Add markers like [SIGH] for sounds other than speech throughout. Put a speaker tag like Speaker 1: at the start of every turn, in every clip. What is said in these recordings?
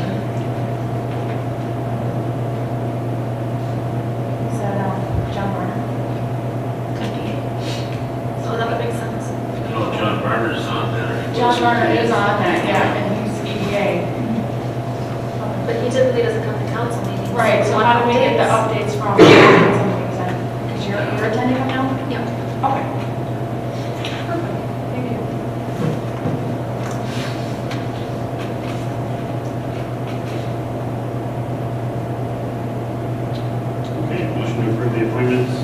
Speaker 1: um,
Speaker 2: Oh,
Speaker 1: Josh Varner is on that, yeah, and he's E EDA.
Speaker 3: But he typically doesn't come to council meetings.
Speaker 1: Right, so
Speaker 3: We
Speaker 1: how do we get the
Speaker 3: updates.
Speaker 1: updates [COUGHS] from? Because you're, you're attending them now?
Speaker 3: Yeah.
Speaker 1: Okay. Thank you.
Speaker 2: Okay, motion to approve the appointments.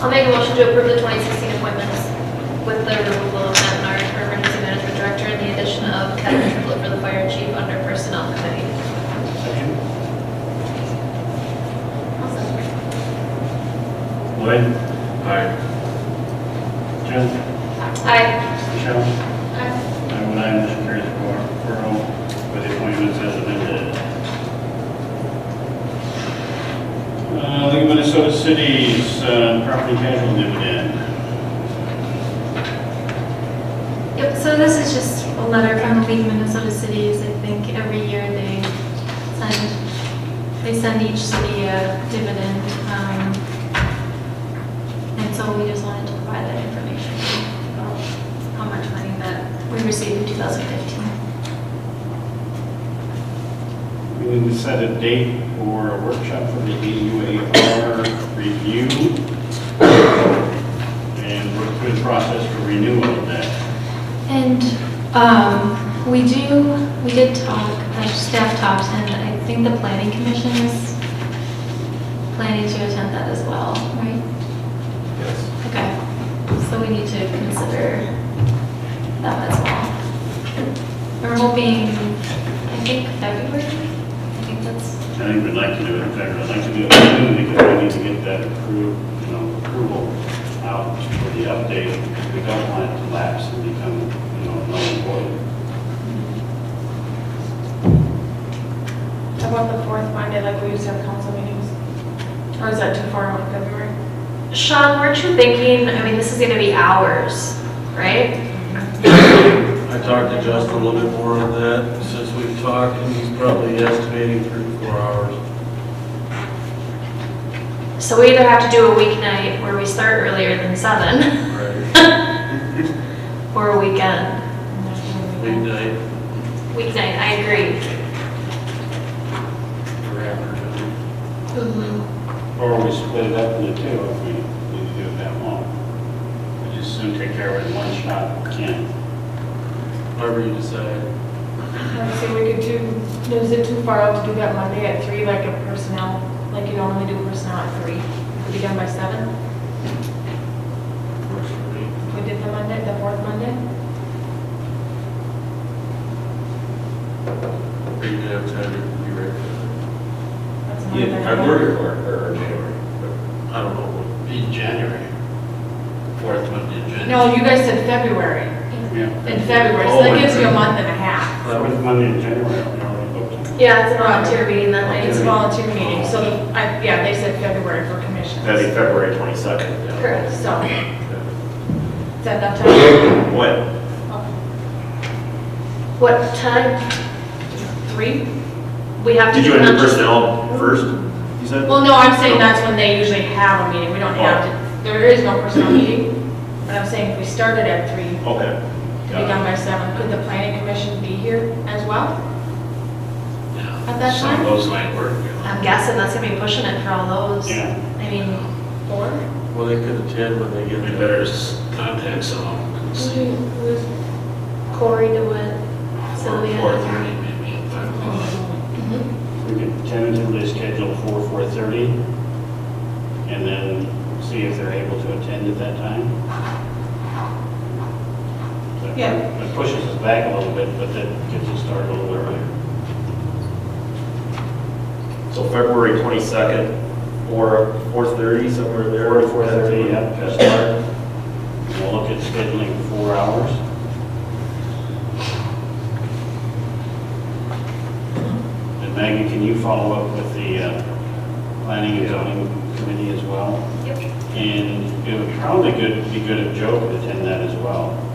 Speaker 3: I'll make a motion to approve the 2016 appointments with the removal of Matt Nard for emergency management director and the addition of Kevin Triplett for the fire chief under personnel committee.
Speaker 2: Second.
Speaker 3: Awesome.
Speaker 2: Lloyd. Aye. Jim.
Speaker 3: Aye.
Speaker 2: Michelle.
Speaker 3: Aye.
Speaker 2: I would aye, motion carries four, four oh, with the appointments as amended. Uh, League of Minnesota Cities, uh, property casual dividend.
Speaker 4: Yep, so this is just a letter from the League of Minnesota Cities. I think every year they send, they send each city a dividend. um, And so we just wanted to provide that information about how much money that we received in 2015.
Speaker 2: We need to set a date for a workshop for the AUAR review and work through the process for renewal of that.
Speaker 4: And um, we do, we did talk, uh, staff talked, and I think the planning commission is planning to attend that as well, right?
Speaker 5: Yes.
Speaker 4: Okay, so we need to consider that as well. We're hoping, I think February, I think that's,
Speaker 2: I think we'd like to do it, in fact, I'd like to do it soon because we need to get that approved, you know, approval out for the update. We don't want it to lapse and become, you know, null and void.
Speaker 1: How about the fourth Monday, like we used to have council meetings? Or is that too far out in February?
Speaker 3: Sean, weren't you thinking, I mean, this is going to be hours, right?
Speaker 5: I talked to Justin a little bit more on that since we've talked, and he's probably estimating three, to four hours.
Speaker 3: So we either have to do a weeknight where we start earlier than seven,
Speaker 5: Right.
Speaker 3: [LAUGHS] or a weekend.
Speaker 5: Weeknight,
Speaker 3: Weeknight, I agree.
Speaker 5: for afternoon.
Speaker 2: Or we split it up into two if we need to do it that long. We just soon take care of it in one shot, if we can.
Speaker 5: Whatever you decide.
Speaker 1: Let's see, we could do, is it too far out to do that Monday at three, like a personnel, like you normally do personnel at three? Could be done by seven?
Speaker 5: Works for me.
Speaker 1: If we did the Monday, the fourth Monday?
Speaker 5: Or you could have time to be ready.
Speaker 1: That's not
Speaker 6: Yeah,
Speaker 1: bad.
Speaker 6: February or, or January.
Speaker 5: I don't know.
Speaker 2: In January.
Speaker 5: Fourth Monday in January.
Speaker 1: No, you guys said February,
Speaker 2: Yeah.
Speaker 1: in February, so
Speaker 6: Oh,
Speaker 1: that gives you a month and a half.
Speaker 2: That was Monday in January, we already booked it.
Speaker 3: Yeah, it's a volunteer meeting that night.
Speaker 1: It's a volunteer meeting, so, I, yeah, they said February for commissions.
Speaker 6: That'd be February twenty-second.
Speaker 3: Correct.
Speaker 1: So, is that enough time? Oh,
Speaker 6: What?
Speaker 3: What time?
Speaker 1: Three?
Speaker 3: We have to.
Speaker 6: Did you
Speaker 3: do
Speaker 6: end
Speaker 3: not
Speaker 6: the
Speaker 3: just-
Speaker 6: personnel first, you said?
Speaker 1: Well, no, I'm saying that's when they usually have a meeting, we don't have
Speaker 6: Oh.
Speaker 1: to, there is no personal meeting, but I'm saying if we started at three,
Speaker 6: Okay.
Speaker 1: to be
Speaker 6: Got it.
Speaker 1: done by seven, could the planning commission be here as well?
Speaker 5: Yeah.
Speaker 1: At that
Speaker 5: Some
Speaker 1: time?
Speaker 5: of those might work. you know.
Speaker 3: I'm guessing that's gonna be pushing it for all those.
Speaker 2: Yeah.
Speaker 3: I mean,
Speaker 1: Four?
Speaker 5: Well, they could attend when they get
Speaker 2: We
Speaker 5: there.
Speaker 2: better
Speaker 5: just contact someone and
Speaker 3: Mm-hmm. Corey do it, Sylvia.
Speaker 5: Four thirty maybe, at five o'clock.
Speaker 3: Mhm.
Speaker 2: We could tentatively schedule for four thirty, and then see if they're able to attend at that time. That-
Speaker 1: Yeah.
Speaker 2: That pushes us back a little bit, but that gets us started a little earlier.
Speaker 6: So February twenty-second or four-thirty, somewhere there.
Speaker 2: Four to four thirty, yeah, just start. We'll look at scheduling four hours. And Maggie, can you follow up with the uh, planning and zoning committee as well?
Speaker 3: Yep.
Speaker 2: And it would probably good, be good if Joe could attend that as well.